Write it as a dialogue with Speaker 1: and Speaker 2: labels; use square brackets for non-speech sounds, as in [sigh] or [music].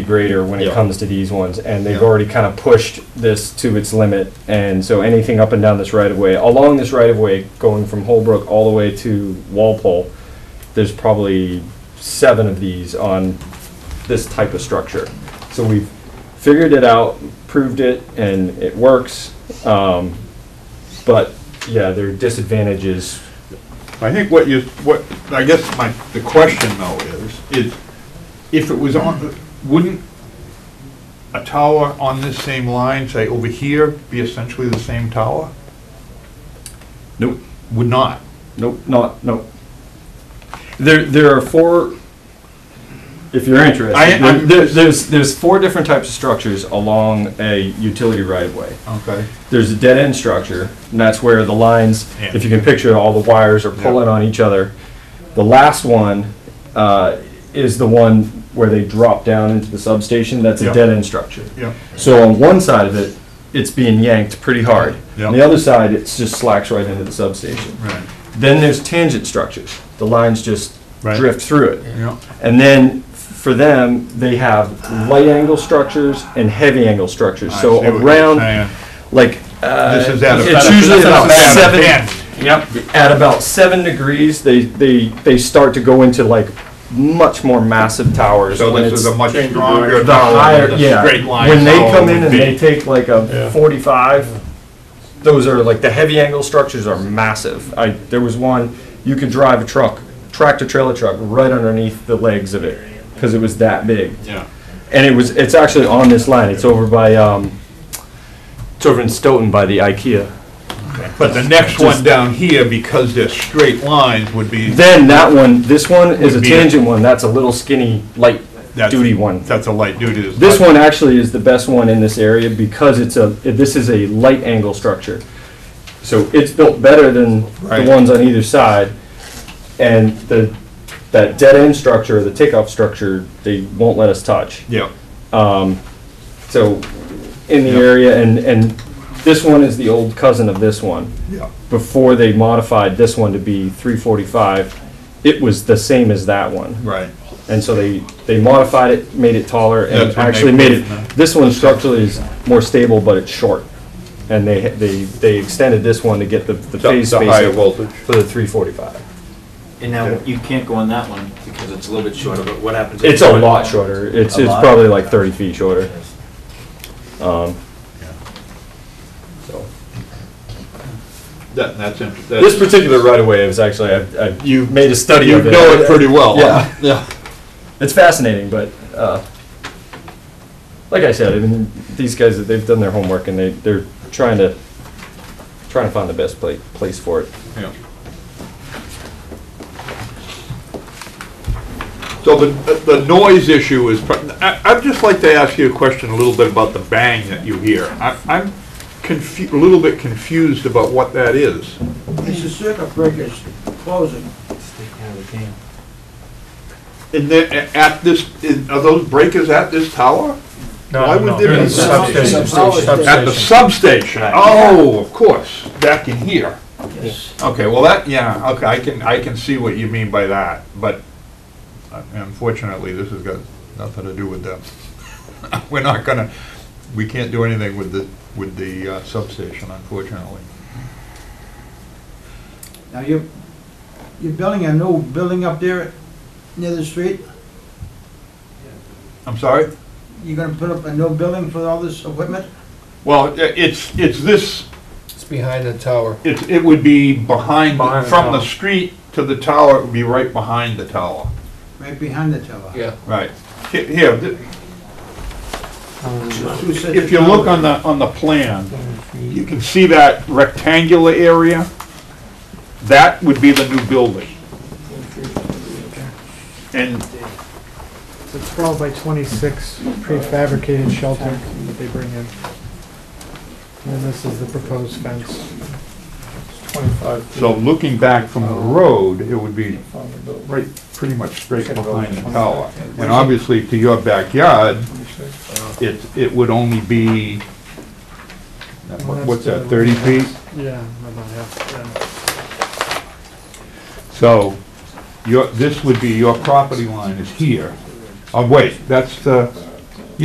Speaker 1: greater when it
Speaker 2: Yeah.
Speaker 1: comes to these ones, and they've
Speaker 2: Yeah.
Speaker 1: already kind of pushed this to its limit, and so anything up and down this right of way, along this right of way, going from Holbrook all the way to Walpole, there's probably seven of these on this type of structure. So we've figured it out, proved it, and it works, um, but, yeah, there are disadvantages.
Speaker 2: I think what you, what, I guess my, the question though is, is if it was on, wouldn't a tower on this same line, say over here, be essentially the same tower?
Speaker 1: Nope.
Speaker 2: Would not.
Speaker 1: Nope, not, nope. There, there are four, if you're interested,
Speaker 2: I-
Speaker 1: there-
Speaker 2: I'm-
Speaker 1: there- there's, there's four different types of structures along a utility right-of-way.
Speaker 2: Okay.
Speaker 1: There's a dead-end structure, and that's where the lines,
Speaker 2: Yeah.
Speaker 1: if you can picture, it, all the wires are pulling on each other. The last one uh, is the one where they drop down into the substation, that's a
Speaker 2: Yeah.
Speaker 1: dead-end structure.
Speaker 2: Yeah,
Speaker 1: So on one side of it, it's being yanked pretty hard.
Speaker 2: Yeah.
Speaker 1: On the other side, it's just slacks right into the substation.
Speaker 2: right,
Speaker 1: Then there's tangent structures. The lines just
Speaker 2: Right.
Speaker 1: drift through it.
Speaker 2: yeah,
Speaker 1: And then for them, they have light angle structures and heavy angle structures.
Speaker 2: I see
Speaker 1: so
Speaker 2: what you're saying.
Speaker 1: around, like, uh,
Speaker 2: This is at a-
Speaker 1: it's usually
Speaker 2: That's
Speaker 1: about
Speaker 2: at a
Speaker 1: seven.
Speaker 2: ten.
Speaker 1: Yep. At about seven degrees, they, they, they start to go into like much more massive towers.
Speaker 2: so
Speaker 1: when
Speaker 2: this is
Speaker 1: it's
Speaker 2: a much
Speaker 3: Change the
Speaker 2: stronger
Speaker 3: direction.
Speaker 1: the
Speaker 2: tower
Speaker 1: higher,
Speaker 2: than
Speaker 1: yeah.
Speaker 2: a Oh, straight line.
Speaker 1: When they
Speaker 2: tower
Speaker 1: come in
Speaker 2: would
Speaker 1: and
Speaker 2: be.
Speaker 1: they take like
Speaker 3: Yeah.
Speaker 1: a forty-five, those are like, the heavy angle structures are massive. I, there was one, you could drive a truck, tractor trailer truck, right underneath the legs of it, because it was that big.
Speaker 2: Yeah,
Speaker 1: And it was, it's actually on this line, it's over by, um, it's over in Stoughton by the IKEA.
Speaker 2: but the next one down here, because they're straight lines, would be.
Speaker 1: Then that one, this one is a
Speaker 2: Would be a-
Speaker 1: tangent one, that's a little skinny, light
Speaker 2: that's-
Speaker 1: duty one.
Speaker 2: That's a light duty. it's
Speaker 1: This
Speaker 2: not-
Speaker 1: one actually is the best one in this area because it's a, this is a light angle structure. So it's built better than the
Speaker 2: Right.
Speaker 1: ones on either side. And the, that dead end structure, the takeoff structure, they won't let us touch.
Speaker 2: Yeah,
Speaker 1: So in the
Speaker 2: Yep.
Speaker 1: area and, and this one is the old cousin of this one.
Speaker 2: yeah,
Speaker 1: Before they modified this one to be three forty-five, it was the same as that one.
Speaker 2: right.
Speaker 1: And so they, they modified it, made it taller, and
Speaker 2: That's what
Speaker 1: actually
Speaker 2: they
Speaker 1: made
Speaker 2: put in
Speaker 1: it,
Speaker 2: the-
Speaker 1: this one structurally is more stable, but it's short. And they, they, they extended this one to get the, the phase spacing
Speaker 2: voltage.
Speaker 1: for the three forty-five.
Speaker 3: And now you can't go on that one because it's a little bit shorter, but what happens? if
Speaker 1: It's
Speaker 3: you
Speaker 1: a
Speaker 3: go-
Speaker 1: lot shorter, it's,
Speaker 3: A
Speaker 1: it's
Speaker 3: lot?
Speaker 1: probably like thirty feet shorter. Um, so.
Speaker 2: That, that's interesting.
Speaker 1: This particular right of way is actually, I've, I've
Speaker 2: You-
Speaker 1: made a study
Speaker 2: You
Speaker 1: of it.
Speaker 2: know it pretty well.
Speaker 1: Yeah.
Speaker 2: Yeah.
Speaker 1: It's fascinating, but, uh, like I said, I mean, these guys, they've done their homework and they, they're trying to, trying to find the best pla- place for it.
Speaker 2: Yeah. So the, the noise issue is, pr- I, I'd just like to ask you a question a little bit about the bang that you hear. I, I'm confu, a little bit confused about what that is.
Speaker 4: It's the circuit breakers closing.
Speaker 2: And then, a- at this, in- are those breakers at this tower? Why would there be
Speaker 4: substation. Substation.
Speaker 2: At the substation? Oh, of course, back in here.
Speaker 4: Yes.
Speaker 2: Okay, well, that, yeah, okay, I can, I can see what you mean by that, but unfortunately, this has got nothing to do with them. [laughs] We're not gonna, we can't do anything with the, with the uh, substation, unfortunately.
Speaker 4: Now, you're, you're building a new building up there near the street?
Speaker 2: I'm sorry?
Speaker 4: You're gonna put up a new building for all this equipment?
Speaker 2: Well, i- it's, it's this,
Speaker 5: It's behind the tower.
Speaker 2: it, it would be behind,
Speaker 5: Behind the
Speaker 2: from the
Speaker 5: tower.
Speaker 2: street to the tower, it would be right behind the tower.
Speaker 4: Right behind the tower?
Speaker 5: Yeah.
Speaker 2: Right. He- Here, th-
Speaker 4: Two sets
Speaker 2: if
Speaker 4: of
Speaker 2: you look
Speaker 4: towers.
Speaker 2: on the, on the plan, you can see that rectangular area, that would be the new building. And
Speaker 6: It's a 12 by 26 prefabricated shelter that they bring in. And this is the proposed fence.
Speaker 2: so looking back from the road, it would be right, pretty much straight behind the tower. And obviously to your backyard, it, it would only be, what's that, 30 feet?
Speaker 6: Yeah, about half, yeah.
Speaker 2: So your, this would be, your property line is here. Oh, wait, that's the,